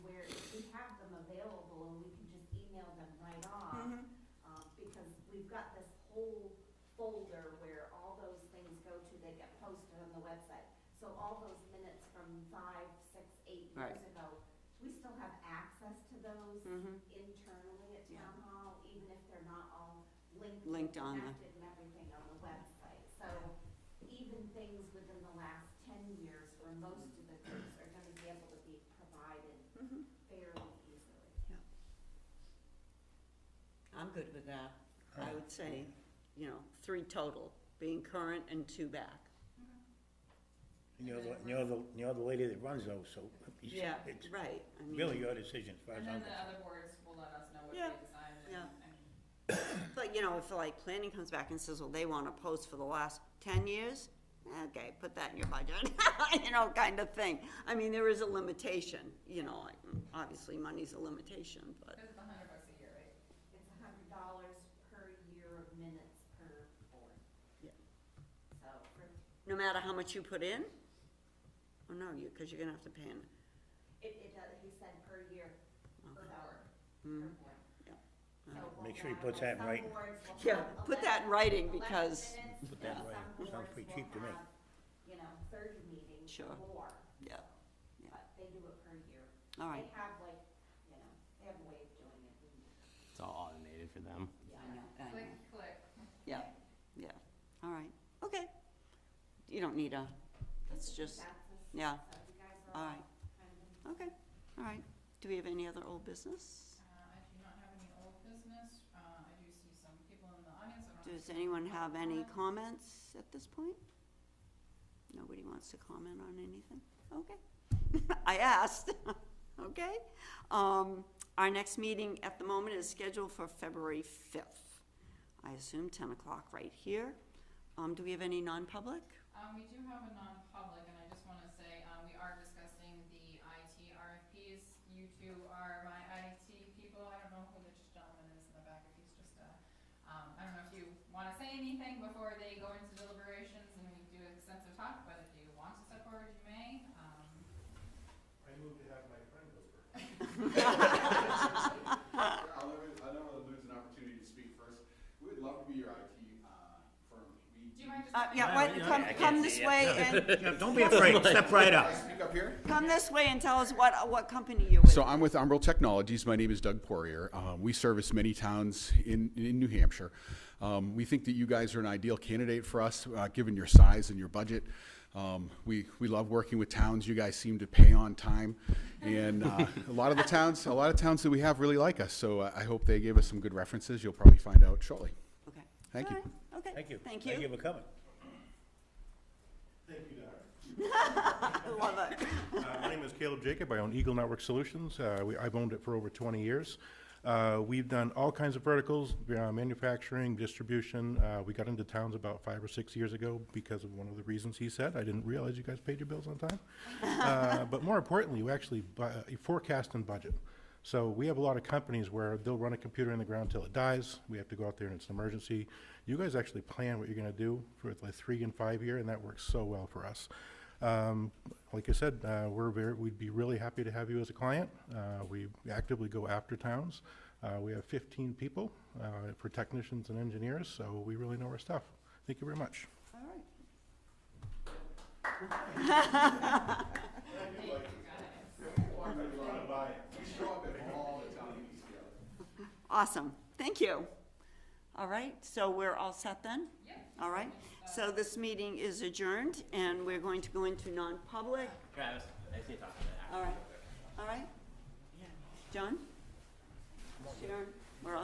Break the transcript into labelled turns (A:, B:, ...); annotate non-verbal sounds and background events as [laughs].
A: Mm-hmm.
B: um, So all those minutes from five, six, eight
A: Right.
B: years ago, we still have access to those
A: Mhm.
B: internally at
A: Yeah.
B: town hall, even if they're not all linked. and
A: Linked on the-
B: Connected and everything on the website, so even things within the last ten years where most of the groups are gonna be able to be provided
A: Mhm.
B: fairly easily.
A: I'm good with that. I would say, you know, three total, being current and two back.
C: You're the, you're the, you're the lady that runs those, so it's,
A: Yeah,
C: it's
A: right. I mean,
C: really your decision as far as
D: And then
C: I'm
D: the
C: concerned.
D: other boards will let us know what
A: Yeah,
D: they decide and,
A: yeah.
D: I mean,
A: But, you know, if like planning comes back and says, well, they want to post for the last ten years, okay, put that in your budget, [laughs] you know, kind of thing. I mean, there is a limitation, you know, like, obviously money's a limitation, but,
D: cause it's a hundred bucks a year, right?
B: It's a hundred dollars per year of minutes per board.
A: Yeah.
B: So for,
A: no matter how much you put in? Oh, no, you, because you're gonna have to pay in.
B: it, it does, he said per year, per hour, per
A: Mm.
B: board.
A: Yeah.
B: So we'll
C: Make sure he
B: have, like,
C: puts that in writing.
B: Some boards will
A: Yeah,
B: have
A: put that in
B: 11
A: writing
B: 11
A: because-
B: minutes,
C: Put that in
B: and
C: writing.
B: some
C: Sounds
B: boards
C: pretty
B: will
C: cheap to me.
B: have, You know, thirty meetings
A: Sure.
B: or more.
A: Yeah. Yeah.
B: But they do it per year.
A: All right.
B: They have like, you know, they have a way of doing it. and-
E: It's all automated
C: [laughs]
E: for them.
A: I know, I know.
D: Click, click.
A: Yeah, yeah, all right, okay. You don't need a, that's
B: It's a
A: just,
B: consensus,
A: yeah,
B: So you guys are
A: all
B: all
A: right,
B: kind of.
A: okay, all right. Do we have any other old business?
D: Uh, I do not have any old business, uh, I do see some people in the audience, I don't know.
A: Does anyone have any comments at this point? Nobody wants to comment on anything? Okay. [laughs] I asked, okay? Um, our next meeting at the moment is scheduled for February fifth. I assume ten o'clock right here. Um, do we have any non-public?
D: Um, we do have a non-public, and I just wanna say, um, we are discussing the IT RFPs. You two are my IT people, I don't know who the gentleman is in the back, if he's just, uh, um, I don't know if you wanna say anything before they go into deliberations and we do extensive talk, but if you want to step forward, you may, um.
F: I move to have my friend over. I'll never, I don't wanna lose an opportunity to speak first. We would love to be your IT, uh, firm. We.
D: Do you mind just?
A: Uh,
D: coming
A: yeah,
D: up?
A: why,
E: yeah,
A: come,
E: I can't
A: come
E: see
A: this
E: it.
A: way and,
C: Yeah, don't be
E: [laughs]
C: afraid, step right
F: Can I
C: up.
F: speak up here?
A: come this way and tell us what, what company you're with.
G: So I'm with Umbral Technologies. My name is Doug Poirier. Um, we service many towns in, in New Hampshire. Um, we think that you guys are an ideal candidate for us, uh, given your size and your budget. Um, we, we love working with towns. You guys seem to pay on time, and uh, a lot of the towns, a lot of towns that we have really like us. So uh, I I hope they give us some good references. You'll probably find out shortly.
A: Okay.
G: Thank you.
A: All right, Okay.
C: Thank you.
A: Thank
C: Thank you
A: you.
C: for coming.
F: Thank you, Doc.
A: I love it.
F: Uh, My name is Caleb Jacob. I own Eagle Network Solutions. Uh, we- I've owned it for over 20 years. Uh, We've done all kinds of verticals, uh, manufacturing, distribution. Uh, We got into towns about five or six years ago because of one of the reasons he said. I didn't realize you guys paid your bills on time. Uh, But more importantly, we actually bu- uh, forecast and budget. So we have a lot of companies where they'll run a computer in the ground till it dies. We have to go out there and it's an emergency. You guys actually plan what you're going to do for like three and five year, and that works so well for us. Um, like I said, uh, we're very, we'd be really happy to have you as a client. Uh, we actively go after towns. Uh, we have fifteen people, uh, for technicians and engineers, so we really know our stuff. Thank you very much.
A: All right. Awesome, thank you. All right, so we're all set then?
D: Yeah.
A: All right, so this meeting is adjourned, and we're going to go into non-public.
E: Travis, I see you talking about